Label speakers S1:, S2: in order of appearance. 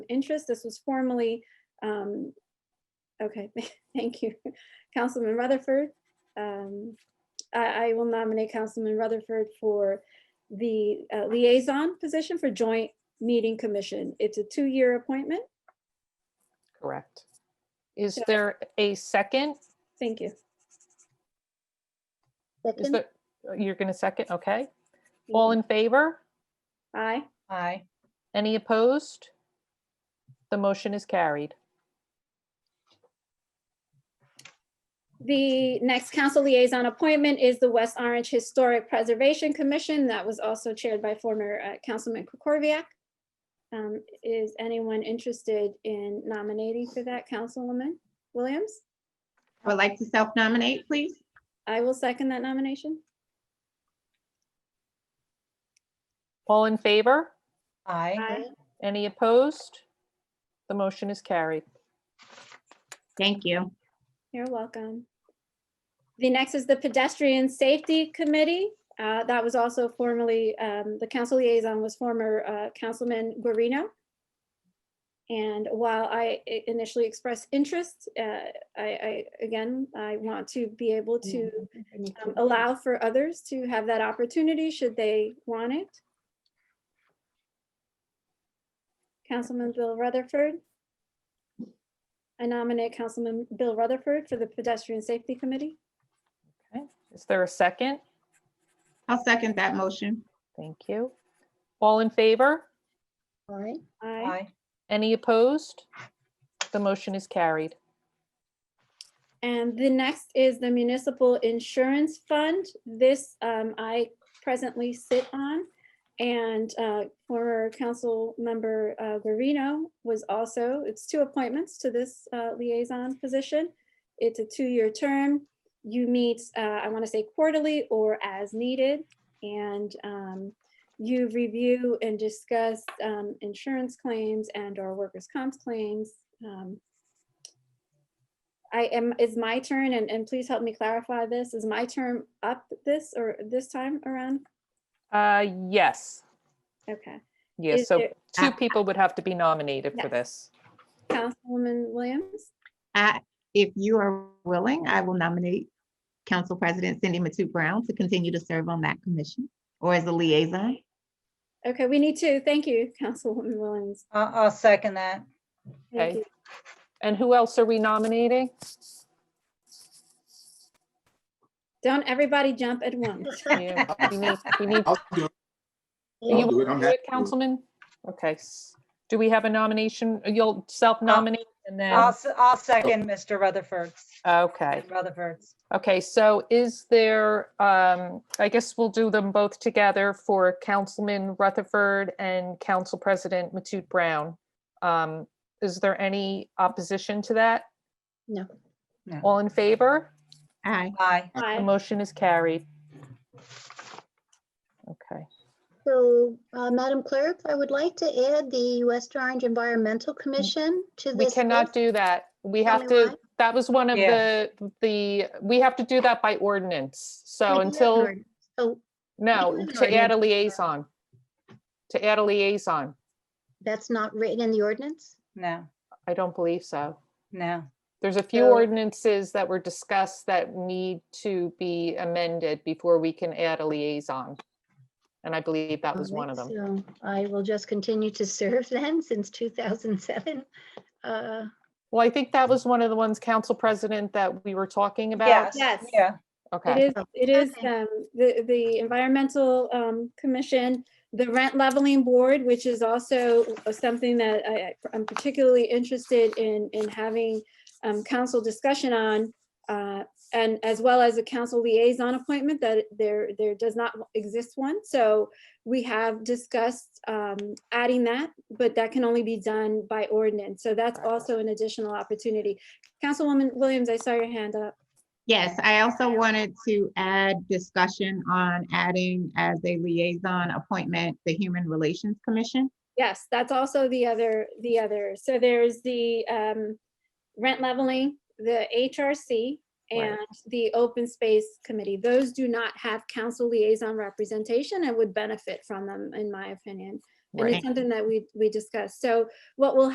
S1: interest. This was formerly, um, okay, thank you, Councilman Rutherford. Um, I, I will nominate Councilman Rutherford for the uh, liaison position for Joint Meeting Commission. It's a two-year appointment.
S2: Correct. Is
S1: So-
S2: there a second?
S1: Thank you.
S2: Is
S3: Second,
S2: there, oh, you're going to second? Okay.
S1: Mm-hmm.
S2: All in favor?
S1: Aye.
S4: Aye.
S2: Any opposed? The motion is carried.
S1: The next council liaison appointment is the West Orange Historic Preservation Commission. That was also chaired by former uh, Councilman Kukorviac. Um, Is anyone interested in nominating for that, Councilwoman Williams?
S5: I would like to self-nominate, please.
S1: I will second that nomination.
S2: All in favor?
S4: Aye.
S1: Aye.
S2: Any opposed? The motion is carried.
S5: Thank you.
S1: You're welcome. The next is the Pedestrian Safety Committee. Uh, That was also formerly, um, the council liaison was former uh, Councilman Guarino. And while I i- initially expressed interest, uh, I, I, again, I want to be able to um, allow for others to have that opportunity should they want it. Councilman Bill Rutherford. I nominate Councilman Bill Rutherford for the Pedestrian Safety Committee.
S2: Okay. Is there a second?
S5: I'll second that motion.
S2: Thank you. All in favor?
S3: aye.
S1: Aye.
S4: Aye.
S2: Any opposed? The motion is carried.
S1: And the next is the Municipal Insurance Fund. This um, I presently sit on. And uh, former council member uh, Guarino was also, it's two appointments to this uh, liaison position. It's a two-year term. You meet, uh, I want to say quarterly or as needed. And um, you review and discuss um, insurance claims and or workers' comp claims. um, I am, is my turn, and, and please help me clarify this, is my term up this or this time around?
S2: Uh, yes,
S1: Okay,
S2: yes.
S1: Is
S2: So
S1: there- uh,
S2: two people would have to be nominated for
S1: Yes.
S2: this.
S1: Councilwoman Williams,
S5: I, if you are willing, I will nominate Council President Cindy Matu Brown to continue to serve on that commission or as a liaison.
S1: okay, we need two, thank you, Councilwoman Williams.
S4: I- I'll second that.
S1: Thank
S2: Okay.
S1: you.
S2: And who else are we nominating?
S1: Don't everybody jump at once.
S2: You- We need, we need
S6: I'll do it.
S2: Are
S6: I'll
S2: you
S6: do it. I'm
S2: Do it,
S6: happy.
S2: Councilman? Okay. s- Do we have a nomination? You'll self-nominate and
S4: I'll,
S2: then,
S4: s- I'll second Mr. Rutherford's,
S2: okay.
S4: Rutherford's.
S2: Okay, so is there, um, I guess we'll do them both together for Councilman Rutherford and Council President Matute Brown. Um, Is there any opposition to that?
S3: No.
S4: No.
S2: All in favor?
S5: Aye.
S4: Aye.
S2: The
S1: Aye.
S2: motion is carried. Okay,
S3: So, uh, Madam Clerk, I would like to add the West Orange Environmental Commission to
S2: we
S3: this.
S2: cannot
S3: list.
S2: do that. We
S3: Tell
S2: have
S3: me
S2: to, that was one of
S4: Yeah.
S2: the, the, we have to do that by ordinance.
S3: We
S2: So
S3: do have
S2: until
S3: an ord- Oh,
S2: No,
S3: have an
S2: to add a liaison. To add a liaison.
S3: that's not written in the ordinance?
S4: No,
S2: I don't believe so.
S4: no.
S2: There's a few
S3: So-
S2: ordinances that were discussed that need to be amended before we can add a liaison. And I believe that was
S3: All
S2: one
S3: right,
S2: of them.
S3: So I will just continue to serve then since 2007. Uh,
S2: Well, I think that was one of the ones, Council President, that we were talking about.
S4: Yes.
S1: Yes.
S4: Yeah.
S2: Okay.
S1: It is, it is,
S3: Okay.
S1: um, the, the Environmental, um, Commission, the Rent Leveling Board, which is also something that I, I- I'm particularly interested in, in having, um, council discussion on, uh, and as well as a council liaison appointment that there, there does not exist one. So we have discussed, um, adding that, but that can only be done by ordinance. So that's also an additional opportunity. Councilwoman Williams, I saw your hand up.
S5: Yes, I also wanted to add discussion on adding as a liaison appointment, the Human Relations Commission.
S1: Yes, that's also the other, the other. So there's the um, rent leveling, the HRC,
S2: Right.
S1: and the Open Space Committee. Those do not have council liaison representation and would benefit from them, in my opinion. And
S2: Right.
S1: it's something that we, we discussed. So what will